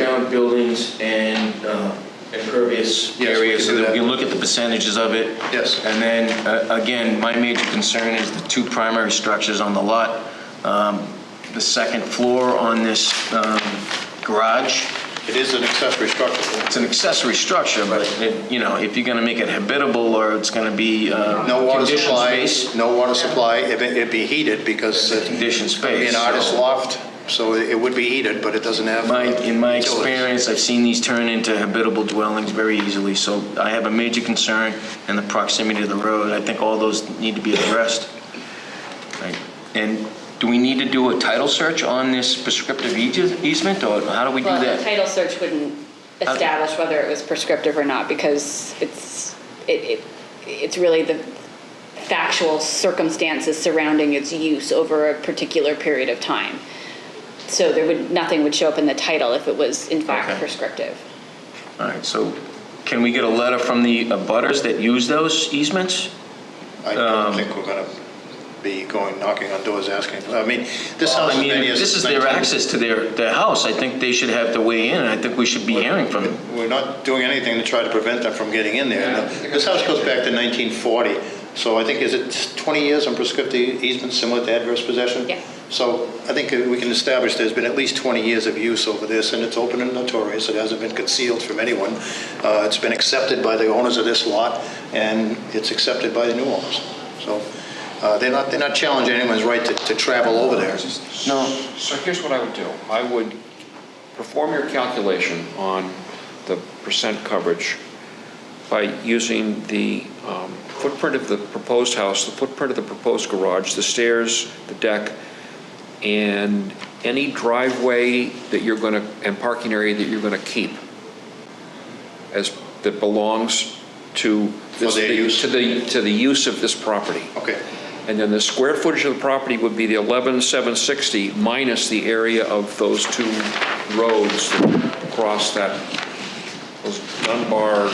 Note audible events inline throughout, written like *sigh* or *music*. around buildings and uh, impervious Yes, we areas, can so do that we that. can look at the percentages of it. Yes. And then, uh, again, my major concern is the two primary structures on the lot. Um, The second floor on this um, garage, It is an accessory structure. it's an accessory structure, but, it- you know, if you're going to make it habitable or it's going to be uh, No water conditioned supply, space, no water supply, It- it'd be heated because it's conditioned be space. an artist so- loft, so it would be heated, but it doesn't have. My, in my utilities. experience, I've seen these turn into habitable dwellings very easily, so I have a major concern in the proximity to the road. I think all those need to be addressed. Right. And do we need to do a title search on this prescriptive eas- easement, or how do we do Well, a that? Uh, title search wouldn't establish whether it was prescriptive or not because it's, it, it, it's really the factual circumstances surrounding its use over a particular period of time. So there would, nothing would show up in the title if it was in Okay. fact prescriptive. All right, so can we get a letter from the abutters that use those easements? um, I don't think we're gonna be going knocking on doors asking, I mean, this I house has mean, been if here this is since their 19 access to their, their house, I think they should have to weigh in, and I think we should be hearing from them. We're not doing anything to try to prevent them from getting in there. No. This house goes back to 1940, so I think, is it 20 years on prescriptive easement similar to adverse possession? Yeah. So I think we can establish there's been at least 20 years of use over this, and it's open and notorious, it hasn't been concealed from anyone. Uh, It's been accepted by the owners of this lot, and it's accepted by the new owners. So uh, they're not, they're not challenging anyone's right to- to travel over there. No. So here's what I would do. I would perform your calculation on the percent coverage by using the um, footprint of the proposed house, the footprint of the proposed garage, the stairs, the deck, and any driveway that you're going to, and parking area that you're going to keep as, that belongs to. For this- their use? To the, to the use of this property. Okay, And then the square footage of the property would be the 11,760 minus the area of those two roads that cross that, those Dunbar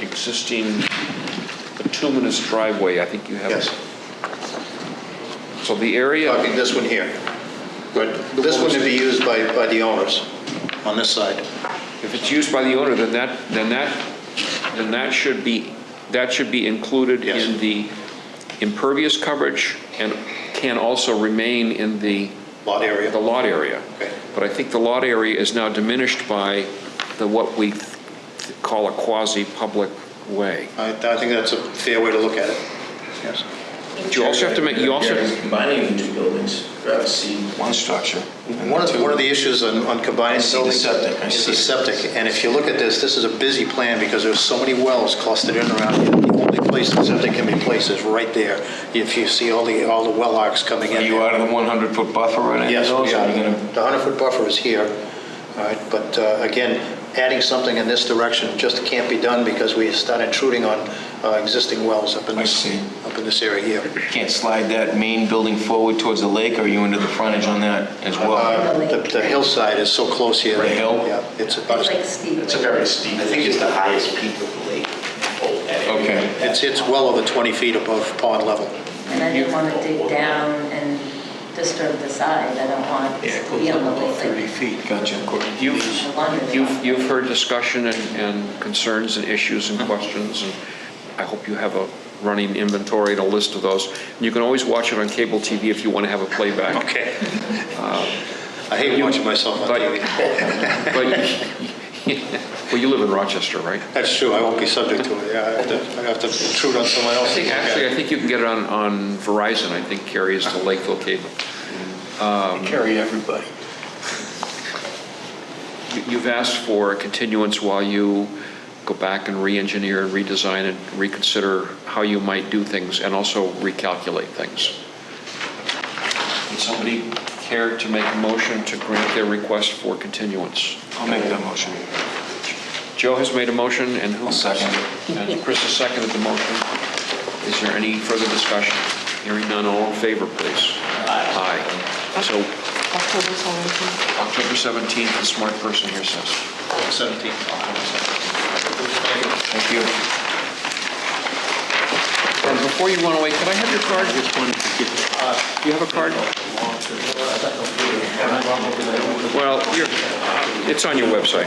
existing bituminous driveway, I think you have. yes. So the area. Talking this one here. But this one would be used by, by the owners on this side. If it's used by the owner, then that, then that, then that should be, that should be included Yes. in the impervious coverage and can also remain in the. Lot area. The lot area. Okay. But I think the lot area is now diminished by the, what we th- call a quasi-public way. I, I think that's a fair way to look at it. Yes. But you also have to make, you also, Combining the two buildings, rather see one structure. One of, one of the issues on, on combining see the buildings septic, I is see it. the septic. And if you look at this, this is a busy plan because there's so many wells clustered in around here. The only place the septic can be placed is right there. If you see all the, all the well arcs coming in. Are you there. out of the 100-foot buffer on any of Yes, those? we Are you are. gonna- The 100-foot buffer is here, all right, but uh, again, adding something in this direction just can't be done because we start intruding on uh, existing wells up in I this, see. up in this area here. Can't slide that main building forward towards the lake, or are you into the frontage on that as well? Uh, The the hillside is so close here. The that- hill? Yeah, it's, It's about- like steep. It's a very steep, I think it's the highest peak of the lake. Oh, that area. Okay. it's, it's well over 20 feet above pond level. And I didn't want to dig down and disturb the side. I don't want Yeah, it it to be goes on up the about lake. 30 feet. Gotcha. you've, You've, you've heard discussion and, and concerns and issues and questions, and I hope you have a running inventory and a list of those. And You can always watch it on cable TV if you want to have a playback. Okay. Uh, I hate you- watching myself on but- TV. But, *laughs* well, you live in Rochester, right? That's true, I won't be subject to it, yeah, I have to, I have to intrude on someone I else. think, actually, I think you can get it on, on Verizon, I think carries the Lakeville cable. Carry everybody. You- You've asked for a continuance while you go back and re-engineer and redesign and reconsider how you might do things and also recalculate things. Would somebody care to make a motion to grant their request for continuance? I'll make that motion. Joe has made a motion and who? I'll second And Chris has seconded the motion. Is there any further discussion? Hearing none, all in favor, please. Aye. So October 17th, the smart person here says. 17. Thank you. And before you run away, can I have your card? Do you have a card? Well, you're- it's on your website.